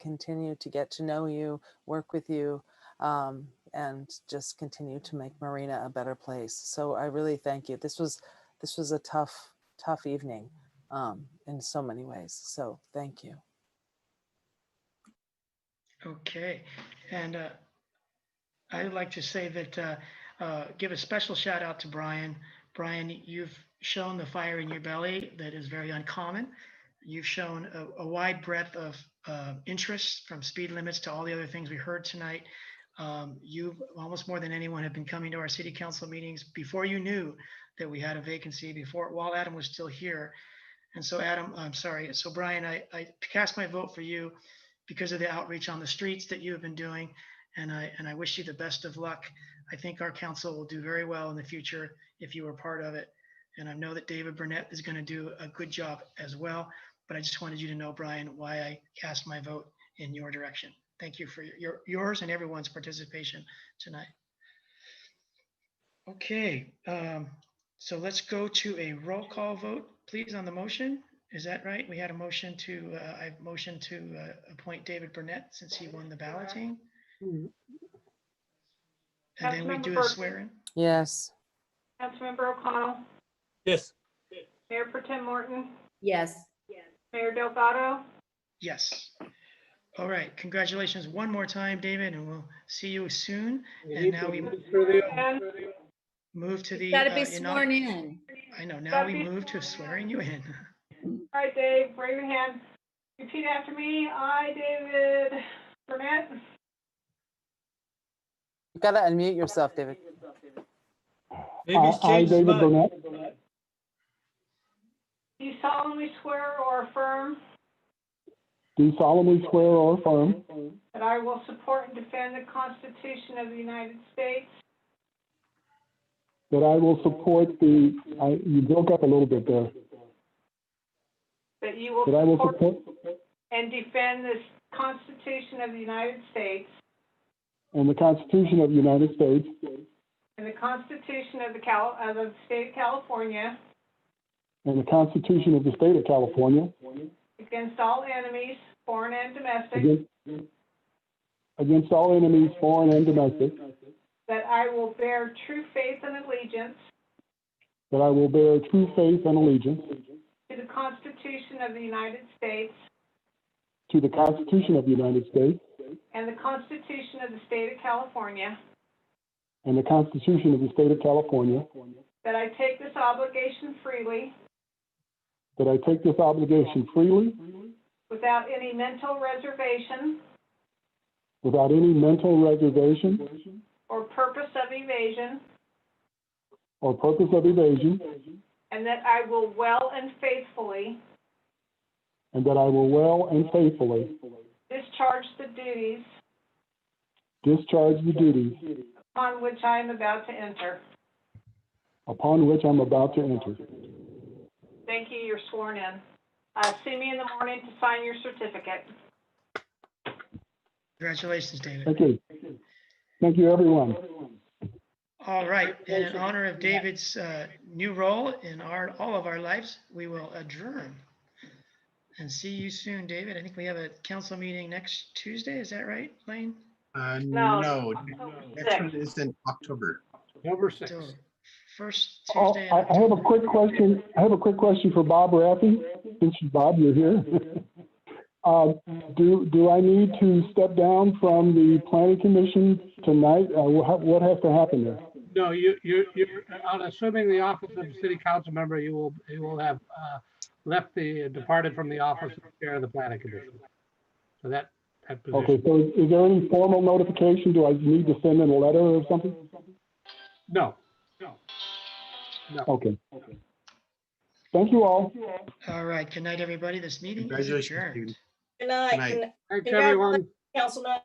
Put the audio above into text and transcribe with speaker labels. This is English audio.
Speaker 1: continue to get to know you, work with you, um, and just continue to make Marina a better place. So I really thank you. This was this was a tough tough evening um, in so many ways. So thank you.
Speaker 2: Okay, and uh, I'd like to say that, uh, uh, give a special shout out to Brian. Brian, you've shown the fire in your belly that is very uncommon. You've shown a, a wide breadth of uh, interests from speed limits to all the other things we heard tonight. Um, You, almost more than anyone, have been coming to our city council meetings before you knew that we had a vacancy, before, while Adam was still here. And so Adam, I'm sorry, so Brian, I, I cast my vote for you because of the outreach on the streets that you have been doing. And I, and I wish you the best of luck. I think our council will do very well in the future if you are part of it. And I know that David Burnett is going to do a good job as well. But I just wanted you to know, Brian, why I cast my vote in your direction. Thank you for your, yours and everyone's participation tonight. Okay, um, so let's go to a roll call vote, please, on the motion. Is that right? We had a motion to, uh, I motioned to uh, appoint David Burnett since he won the balloting.
Speaker 1: Mhm.
Speaker 2: And then we
Speaker 3: Councilmember
Speaker 2: do a
Speaker 3: Bergen.
Speaker 2: swearing.
Speaker 1: Yes.
Speaker 3: Councilmember O'Connell,
Speaker 4: Yes.
Speaker 3: Mayor Pro Tem Morton,
Speaker 5: Yes,
Speaker 3: Mayor Delgado,
Speaker 2: Yes. All right, congratulations one more time, David, and we'll see you soon.
Speaker 4: We
Speaker 2: And
Speaker 4: need
Speaker 2: now
Speaker 4: to
Speaker 2: we-
Speaker 4: move through the-
Speaker 3: and
Speaker 2: Move to the.
Speaker 5: gotta
Speaker 2: uh,
Speaker 5: be
Speaker 2: you know-
Speaker 5: sworn in.
Speaker 2: I know, now
Speaker 3: Gotta
Speaker 2: we
Speaker 3: be
Speaker 2: move to swearing you in.
Speaker 3: all right, Dave, raise your hand. Repeat after me. I, David Burnett,
Speaker 1: You gotta unmute yourself, David.
Speaker 4: Maybe it's
Speaker 6: I,
Speaker 4: changed his
Speaker 6: David
Speaker 4: mind.
Speaker 6: Burnett,
Speaker 3: do solemnly swear or affirm
Speaker 6: do solemnly swear or affirm
Speaker 3: that I will support and defend the Constitution of the United States
Speaker 6: that I will support the, I- you broke up a little bit there,
Speaker 3: That you will
Speaker 6: that I will
Speaker 3: support
Speaker 6: support
Speaker 3: and defend this Constitution of the United States
Speaker 6: and the Constitution of the United States
Speaker 3: and the Constitution of the Cal, of the State of California
Speaker 6: and the Constitution of the State of California
Speaker 3: against all enemies, foreign and domestic,
Speaker 6: against, against all enemies, foreign and domestic,
Speaker 3: that I will bear true faith and allegiance
Speaker 6: that I will bear true faith and allegiance
Speaker 3: to the Constitution of the United States
Speaker 6: to the Constitution of the United States
Speaker 3: and the Constitution of the State of California,
Speaker 6: and the Constitution of the State of California,
Speaker 3: that I take this obligation freely
Speaker 6: that I take this obligation freely
Speaker 3: without any mental reservation
Speaker 6: without any mental reservation
Speaker 3: or purpose of evasion,
Speaker 6: or purpose of evasion,
Speaker 3: and that I will well and faithfully
Speaker 6: and that I will well and faithfully
Speaker 3: discharge the duties
Speaker 6: discharge the duties
Speaker 3: upon which I am about to enter.
Speaker 6: upon which I'm about to enter.
Speaker 3: Thank you, you're sworn in. Uh, see me in the morning to sign your certificate.
Speaker 2: Congratulations, David.
Speaker 6: Thank you. Thank you, everyone.
Speaker 2: All right, and in honor of David's uh, new role in our, all of our lives, we will adjourn. And see you soon, David. I think we have a council meeting next Tuesday, is that right, Lane?
Speaker 7: Uh,
Speaker 3: No,
Speaker 7: no,
Speaker 3: October
Speaker 7: next one
Speaker 3: sixth.
Speaker 7: is in October.
Speaker 4: Number six.
Speaker 2: So First
Speaker 6: Oh,
Speaker 2: Tuesday. in
Speaker 6: I, I have a quick question. I have a quick question for Bob Raffi. Since you- Bob, you're here. Uh, do, do I need to step down from the planning commission tonight? Uh, what, what has to happen there?
Speaker 4: No, you, you, you're, on assuming the office of city council member, you will, you will have uh, left the, departed from the office of chair of the planning commission. So that, that
Speaker 6: Okay,
Speaker 4: position.
Speaker 6: so is- is there any formal notification? Do I need to send in a letter or something?
Speaker 4: No,
Speaker 6: Okay. Thank you all.
Speaker 2: All right, good night, everybody. This meeting is
Speaker 7: Congratulations,
Speaker 2: adjourned.
Speaker 7: David.
Speaker 8: Good
Speaker 7: Good
Speaker 8: night,
Speaker 7: night.
Speaker 8: and
Speaker 4: thanks,
Speaker 8: Congratulations.
Speaker 4: everyone.
Speaker 8: council